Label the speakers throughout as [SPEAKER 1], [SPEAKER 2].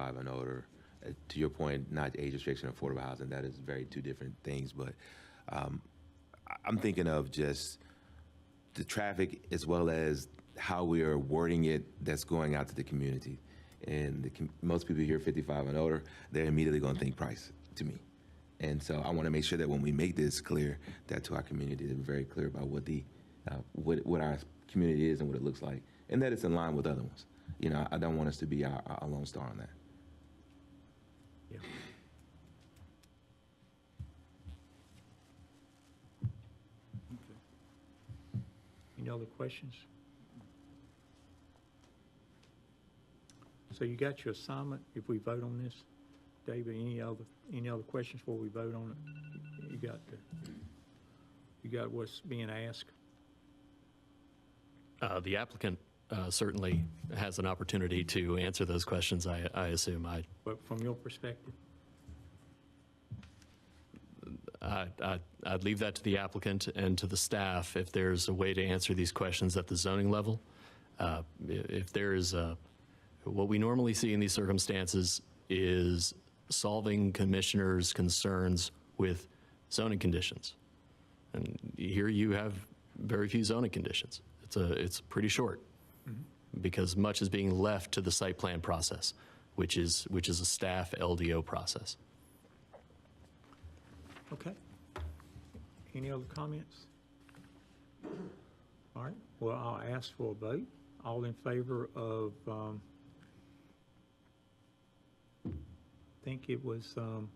[SPEAKER 1] five and older. Uh, To your point, not age restriction, affordable housing, that is very two different things, but um, I- I'm thinking of just the traffic as well as how we are wording it that's going out to the community. And the, com- most people hear 55 and older, they're immediately going to think price to me. And so I want to make sure that when we make this clear, that to our community, that we're very clear about what the, uh, what, what our community is and what it looks like, and that it's in line with other ones. You know, I don't want us to be our, our lone star on that.
[SPEAKER 2] Any other questions? So you got your assignment if we vote on this? David, any other, any other questions before we vote on it? You got the, you got what's being asked?
[SPEAKER 3] Uh, The applicant uh, certainly has an opportunity to answer those questions, I I assume. I
[SPEAKER 2] But from your perspective,
[SPEAKER 3] I- I- I'd leave that to the applicant and to the staff if there's a way to answer these questions at the zoning level. Uh, i- If there is, a- what we normally see in these circumstances is solving commissioners' concerns with zoning conditions. And here you have very few zoning conditions. It's a, it's pretty short because much is being left to the site plan process, which is, which is a staff LDO process.
[SPEAKER 2] okay. Any other comments? All right, well, I'll ask for a vote. All in favor of, um, think it was, um,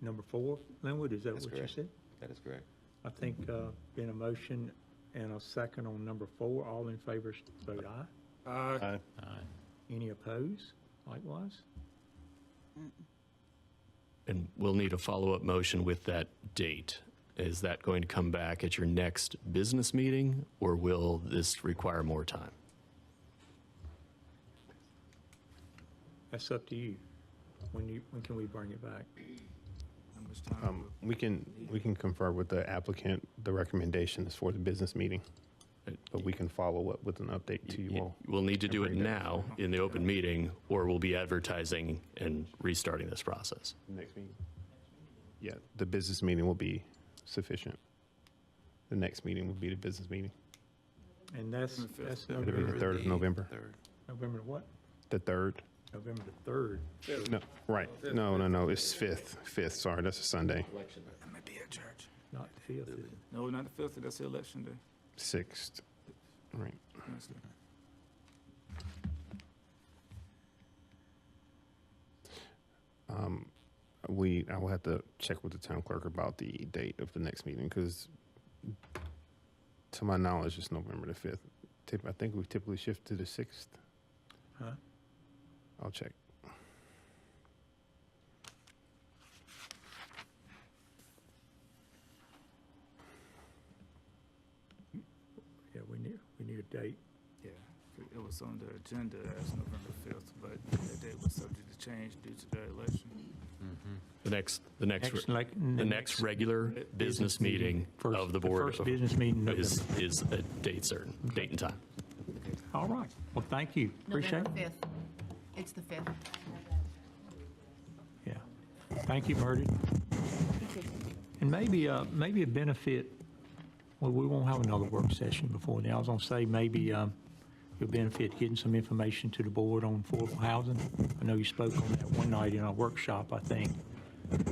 [SPEAKER 2] number four, Linwood, is that
[SPEAKER 1] That's
[SPEAKER 2] what you
[SPEAKER 1] correct.
[SPEAKER 2] said?
[SPEAKER 1] That is correct.
[SPEAKER 2] I think, uh, been a motion and a second on number four. All in favor, vote aye.
[SPEAKER 4] Uh,
[SPEAKER 5] Aye.
[SPEAKER 2] Any opposed? Likewise?
[SPEAKER 3] And we'll need a follow-up motion with that date. Is that going to come back at your next business meeting, or will this require more time?
[SPEAKER 2] That's up to you. When you, when can we bring it back?
[SPEAKER 5] Um, We can, we can confer with the applicant, the recommendations for the business meeting, but we can follow up with an update to you all.
[SPEAKER 3] We'll need to do it
[SPEAKER 5] Bring that.
[SPEAKER 3] now in the open meeting, or we'll be advertising and restarting this process.
[SPEAKER 5] Next meeting? Yeah, the business meeting will be sufficient. The next meeting will be the business meeting,
[SPEAKER 2] And that's, that's
[SPEAKER 5] It'll be the
[SPEAKER 2] November,
[SPEAKER 5] third of November.
[SPEAKER 1] Third.
[SPEAKER 2] November what?
[SPEAKER 5] the third.
[SPEAKER 2] November the third.
[SPEAKER 5] No, right, no, no, no, it's fifth, fifth, sorry, that's a Sunday,
[SPEAKER 4] I'm gonna be at church.
[SPEAKER 2] Not the fifth, is it?
[SPEAKER 4] No, not the fifth, that's the election day.
[SPEAKER 5] sixth, right.
[SPEAKER 4] Wednesday.
[SPEAKER 5] Um, we, I will have to check with the town clerk about the date of the next meeting, because to my knowledge, it's November the fifth. Tip, I think we typically shift to the sixth.
[SPEAKER 2] Huh?
[SPEAKER 5] I'll check.
[SPEAKER 2] Yeah, we need, we need a date.
[SPEAKER 4] Yeah, it was on the agenda as November fifth, but that date was subject to change due to the election.
[SPEAKER 3] The next, the next,
[SPEAKER 2] Next, like.
[SPEAKER 3] the next regular business meeting
[SPEAKER 2] First-
[SPEAKER 3] of the
[SPEAKER 2] The
[SPEAKER 3] board
[SPEAKER 2] first business meeting in
[SPEAKER 3] is,
[SPEAKER 2] November.
[SPEAKER 3] is a date certain, date and time.
[SPEAKER 2] All right. Well, thank you. Appreciate it.
[SPEAKER 6] November 5th. It's the 5th.
[SPEAKER 2] Yeah. Thank you, Murdy. And maybe, uh, maybe a benefit, well, we won't have another work session before then. I was gonna say, maybe, um, you'll benefit getting some information to the board on affordable housing. I know you spoke on that one night in our workshop, I think.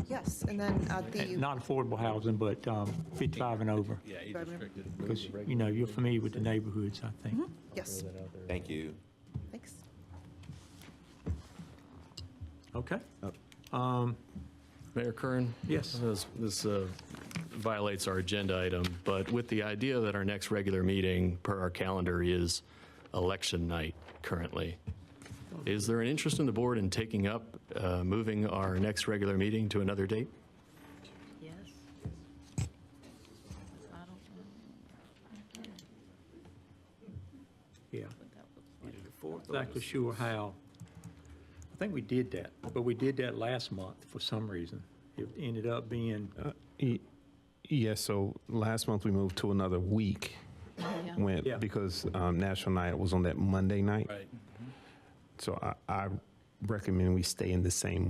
[SPEAKER 7] Yes, and then at the,
[SPEAKER 2] Not affordable housing, but, um, fifty-five and over.
[SPEAKER 1] Yeah, age
[SPEAKER 7] Five minute-
[SPEAKER 2] Because, you know, you're familiar with the neighborhoods, I think.
[SPEAKER 7] yes,
[SPEAKER 1] Thank you.
[SPEAKER 7] thanks.
[SPEAKER 2] Okay? Um,
[SPEAKER 3] Mayor Kern?
[SPEAKER 2] Yes.
[SPEAKER 3] This- This uh, violates our agenda item, but with the idea that our next regular meeting per our calendar is election night currently, is there an interest in the board in taking up, uh, moving our next regular meeting to another date?
[SPEAKER 6] Yes. I don't know
[SPEAKER 2] Yeah.
[SPEAKER 6] what that was.
[SPEAKER 4] Either the fourth or
[SPEAKER 2] exactly sure how. I think we did that, but we did that last month for some reason. It ended up being,
[SPEAKER 5] Y- Yes, so last month we moved to another week
[SPEAKER 6] Yeah.
[SPEAKER 5] when,
[SPEAKER 2] Yeah.
[SPEAKER 5] because um, National Night was on that Monday night.
[SPEAKER 3] Right.
[SPEAKER 5] So I, I recommend we stay in the same